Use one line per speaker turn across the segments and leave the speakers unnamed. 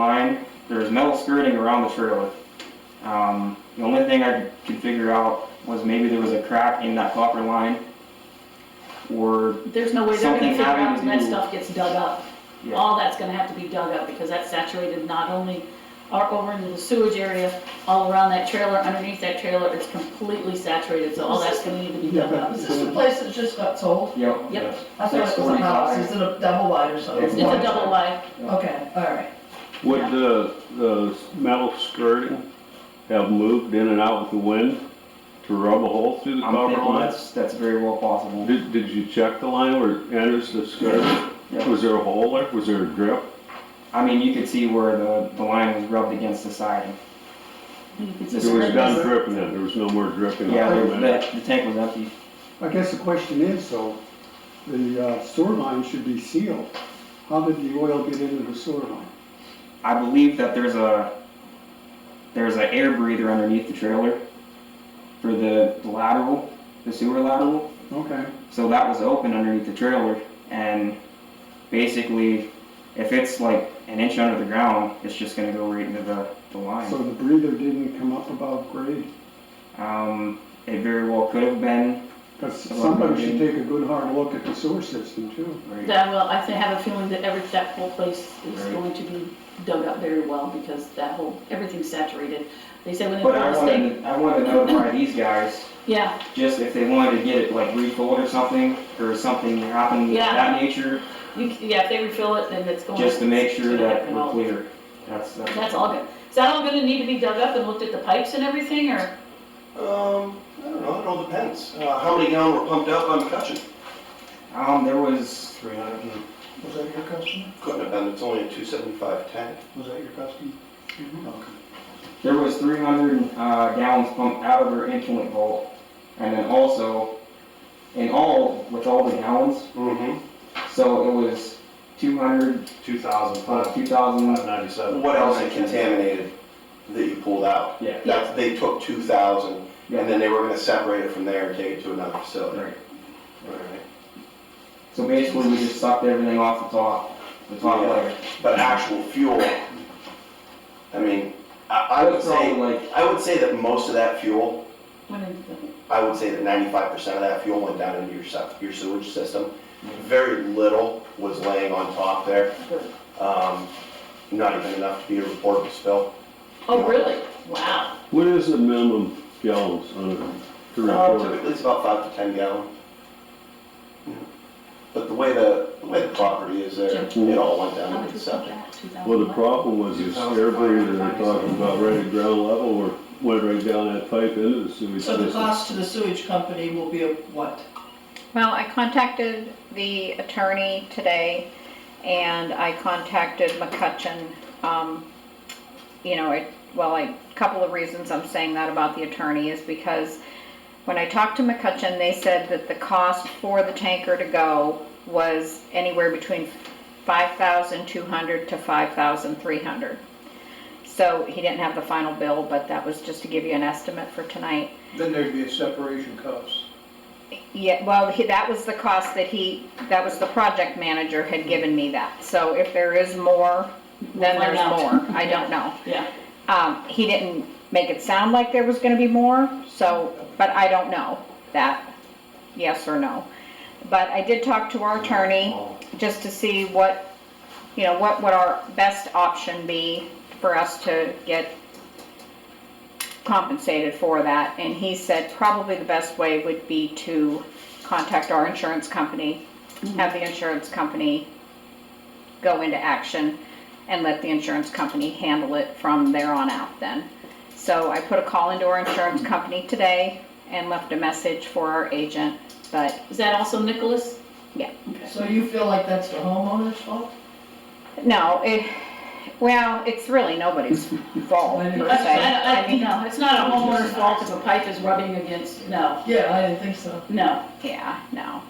line. There was metal skirting around the trailer. Um, the only thing I could figure out was maybe there was a crack in that copper line, or
There's no way they're gonna
Something
figure out
having
when
to
that
do-
stuff gets dug up.
yeah,
All that's gonna have to be dug up because that's saturated not only our, over into the sewage area, all around that trailer, underneath that trailer, it's completely saturated, so all that's gonna need to be dug up.
Is this the place that just got sold?
yep,
Yep.
yes.
I thought it was a house, is it a double wide or something?
It's
It's a double wide,
Okay, all right.
Would
Yeah.
the, the metal skirting have moved in and out with the wind to rub a hole through the
I'm
copper
thinking
line?
that's, that's very well possible.
Did, did you check the line where it enters the skirt?
Yeah.
Was there a hole there? Was there a drip?
I mean, you could see where the, the line was rubbed against the siding.
you could
There
It was
just-
done dripping then, there was no more dripping.
Yeah, there
Wait a
was,
minute.
the, the tank was empty.
I guess the question is, though, the uh, sewer line should be sealed. How did the oil get into the sewer line?
I believe that there's a, there's an air breather underneath the trailer for the lateral, the sewer lateral.
Okay,
So that was open underneath the trailer, and basically, if it's like an inch under the ground, it's just gonna go right into the, the
so
line.
the breather didn't come up above grade?
Um, it very well could have been,
Because somebody should take a good hard look at the sewer system too.
right?
That, well, I think- have a feeling that every, that whole place is
Right.
going to be dug up very well because that whole, everything's saturated. They said when they
But
put
I
this thing,
wanted, I wanted to notify these guys,
yeah,
just if they wanted to get it like refilled or something, or something happened of
Yeah.
that nature,
you, c- yeah, if they refill it, then it's going.
just to make sure
it's gonna
that
happen
we're
all.
clear. That's, that's,
That's all good. Is that all gonna need to be dug up and looked at the pipes and everything, or?
Um, I don't know, it all depends. Uh, how many gallon were pumped out by McCutcheon?
um, there was,
Three hundred and.
Was that your customer?
Couldn't have been, it's only a two seventy-five tank.
Was that your customer? Okay.
There was three hundred uh, gallons pumped out of her influent vault, and then also, in all, with all the gallons,
Mm-hmm.
so it was two hundred,
Two thousand
plus
five,
two thousand,
five ninety-seven.
Uh, What else they contaminated that you pulled out?
yeah.
That's, they took two thousand,
Yeah.
and then they were gonna separate it from there and take it to another facility.
Right.
Alright.
So basically, we just sucked everything off the top, the top
Yeah.
layer.
But actual fuel, I mean, I, I would
That's probably
say,
like,
I would say that most of that fuel,
When it-
I would say that ninety-five percent of that fuel went down into your se- your sewage system.
Mhm.
Very little was laying on top there.
Good.
Um, not even enough to be a reportable spill.
Oh, really? Wow.
What is the minimum gallons on a to
Uh,
refill?
Typically, it's about five to ten gallon. But the way the, the way the property is there, it all went
How
down
much
into the
was
septic.
that? 2,000?
Well, the problem was this air breather they're talking about right at ground level where it went right down that pipe into the sewage
So the
system.
cost to the sewage company will be of what?
Well, I contacted the attorney today, and I contacted McCutcheon. Um, You know, it, well, I- a couple of reasons I'm saying that about the attorney is because when I talked to McCutcheon, they said that the cost for the tanker to go was anywhere between 5200 to 5300 So he didn't have the final bill, but that was just to give you an estimate for tonight.
Then there'd be a separation cost.
Yeah, well, he- that was the cost that he, that was the project manager had given me that. So if there is more, then
We'll find
there's
out.
more. I don't know.
Yeah.
Um, he didn't make it sound like there was gonna be more, so, but I don't know that, yes or no. But I did talk to our attorney just to see what, you know, what would our best option be for us to get compensated for that, and he said probably the best way would be to contact our insurance company, have the insurance company go into action and let the insurance company handle it from there on out then. So I put a call into our insurance company today and left a message for our agent, but
Is that also Nicholas?
So you feel like that's the homeowner's fault?
no, it, well, it's really nobody's fault per
That's-
se.
I- I-
I mean,
No, it's not a homeowner's fault if a pipe is rubbing against, no,
Yeah, I didn't think so.
no.
yeah, no.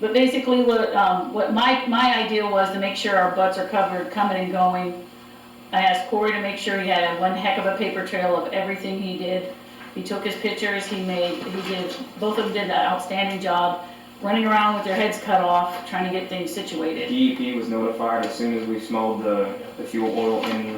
But basically, what, um, what my, my idea was to make sure our butts are covered coming and going. I asked Corey to make sure he had one heck of a paper trail of everything he did. He took his pictures, he made, he did, both of them did an outstanding job. running around with their heads cut
E
off, trying to get things situated.
DEP was notified as soon as we smelled the, the fuel oil in